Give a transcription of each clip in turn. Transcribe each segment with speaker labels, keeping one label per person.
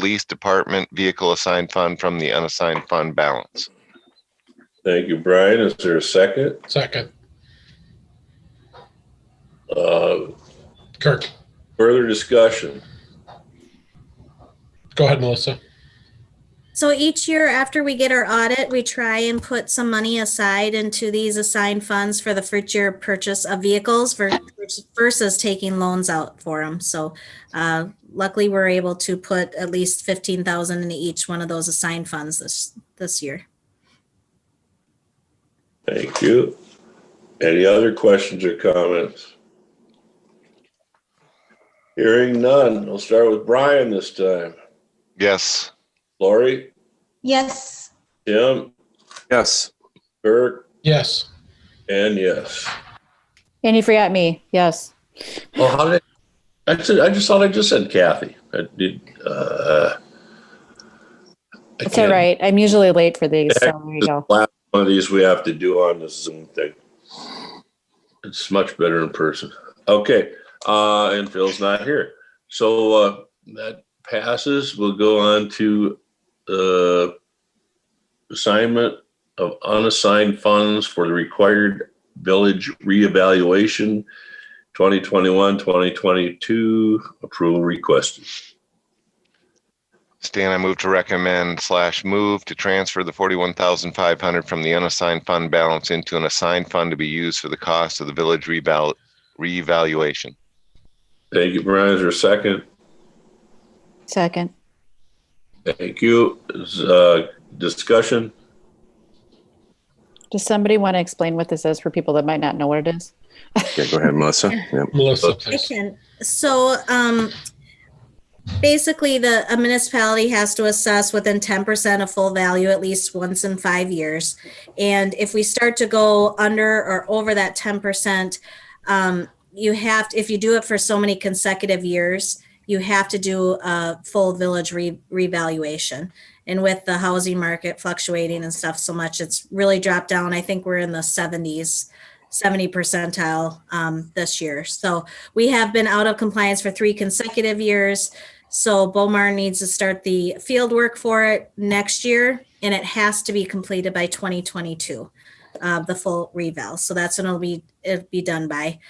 Speaker 1: Police Department Vehicle Assigned Fund from the unassigned fund balance.
Speaker 2: Thank you, Brian. Is there a second?
Speaker 3: Second,
Speaker 2: Uh,
Speaker 3: Kirk,
Speaker 2: Further discussion?
Speaker 3: go ahead, Melissa.
Speaker 4: So each year after we get our audit, we try and put some money aside into these assigned funds for the future purchase of vehicles ver- versus taking loans out for them. So uh, luckily, we're able to put at least 15,000 into each one of those assigned funds this, this year.
Speaker 2: Thank you. Any other questions or comments? Hearing none. We'll start with Brian this time.
Speaker 1: Yes,
Speaker 2: Lori,
Speaker 5: Yes,
Speaker 2: Tim,
Speaker 6: Yes.
Speaker 2: Kirk,
Speaker 3: Yes,
Speaker 2: and yes.
Speaker 7: And you forgot me. Yes.
Speaker 2: Well, how did, I just, I just thought I just said Kathy. I did, uh. I
Speaker 7: It's all
Speaker 2: can't-
Speaker 7: right. I'm usually late for these. So there you
Speaker 2: This
Speaker 7: go.
Speaker 2: Last one of these we have to do on the Zoom thing. It's much better in person. Okay, uh, and Phil's not here. So, uh, that passes. We'll go on to, uh, assignment of unassigned funds for the required village reevaluation 2021, 2022 approval requested.
Speaker 1: Stan, I move to recommend slash move to transfer the forty-one thousand five hundred from the unassigned fund balance into an assigned fund to be used for the cost of the village reval- reevaluation.
Speaker 2: Thank you, Brian. Is there a second?
Speaker 7: Second.
Speaker 2: Thank you. Is, Uh, discussion?
Speaker 7: Does somebody want to explain what this is for people that might not know what it is?
Speaker 6: Yeah, go ahead, Melissa. Yeah.
Speaker 3: Melissa,
Speaker 4: I
Speaker 3: please.
Speaker 4: can. So, um, basically the, a municipality has to assess within ten percent of full value at least once in five years. And if we start to go under or over that ten percent, um, you have, to- if you do it for so many consecutive years, you have to do a full village re- revaluation. And with the housing market fluctuating and stuff so much, it's really dropped down. I think we're in the seventies, seventy percentile, um, this year. So, we have been out of compliance for three consecutive years. So Bomar needs to start the field work for it next year and it has to be completed by 2022, uh, the full reval. So that's when it'll be, it'll be done by.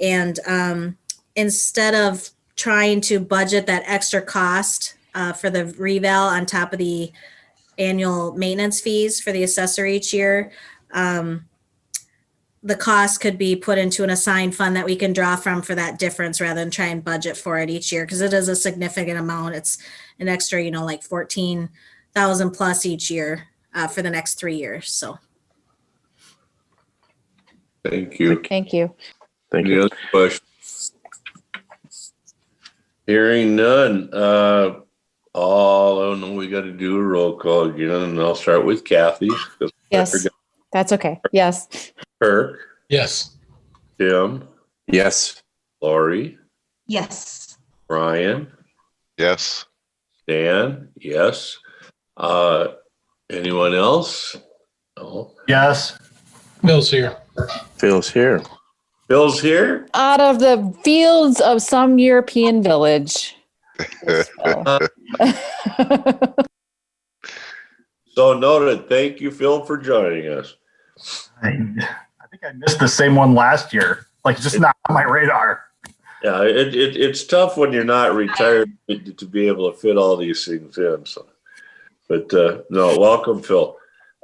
Speaker 4: And, um, instead of trying to budget that extra cost, uh, for the reval on top of the annual maintenance fees for the assessor each year, um, the cost could be put into an assigned fund that we can draw from for that difference rather than try and budget for it each year because it is a significant amount. It's an extra, you know, like fourteen thousand plus each year uh, for the next three years. So
Speaker 2: Thank you.
Speaker 7: Thank you.
Speaker 6: Thank
Speaker 2: Any
Speaker 6: you.
Speaker 2: other questions? Hearing none, uh, all, I do we gotta do a roll call again, and I'll start with Kathy. 'cause I
Speaker 7: Yes.
Speaker 2: forgot
Speaker 7: That's okay. Yes.
Speaker 2: Kirk,
Speaker 3: Yes,
Speaker 2: Tim,
Speaker 6: Yes.
Speaker 2: Lori,
Speaker 5: yes,
Speaker 2: Brian,
Speaker 1: Yes,
Speaker 2: Dan, yes. Uh, anyone else? No.
Speaker 8: Yes,
Speaker 3: Bill's here.
Speaker 6: Phil's here.
Speaker 2: Bill's here?
Speaker 7: Out of the fields of some European village. Yes, Phil.
Speaker 2: So noted. Thank you, Phil, for joining us.
Speaker 8: I I think I missed the same one last year. Like, it's just not on my radar.
Speaker 2: Yeah, it, it, it's tough when you're not retired to to be able to fit all these things in, so. But, uh, no, welcome, Phil.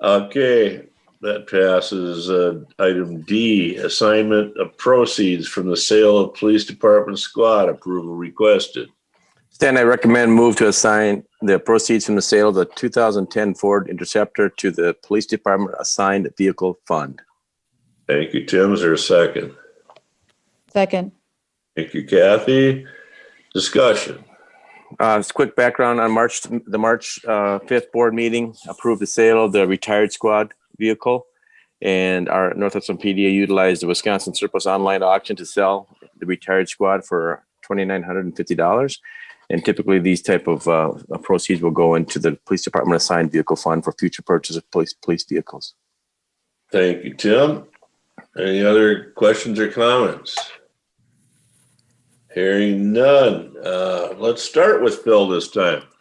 Speaker 2: Okay, that passes, uh, item D, assignment of proceeds from the sale of police department squad approval requested.
Speaker 6: Stan, I recommend move to assign the proceeds from the sale of the 2010 Ford Interceptor to the Police Department Assigned Vehicle Fund.
Speaker 2: Thank you, Tim, is there a second?
Speaker 7: Second.
Speaker 2: Thank you, Kathy. Discussion,
Speaker 6: Uh, just quick background on March, the March uh, 5th board meeting approved the sale of the retired squad vehicle. And our North Hudson PD utilized the Wisconsin surplus online auction to sell the retired squad for $2,950. And typically these type of uh, proceeds will go into the police department assigned vehicle fund for future purchase of police, police vehicles.
Speaker 2: thank you, Tim. Any other questions or comments? Hearing none, uh, let's start with Phil this time.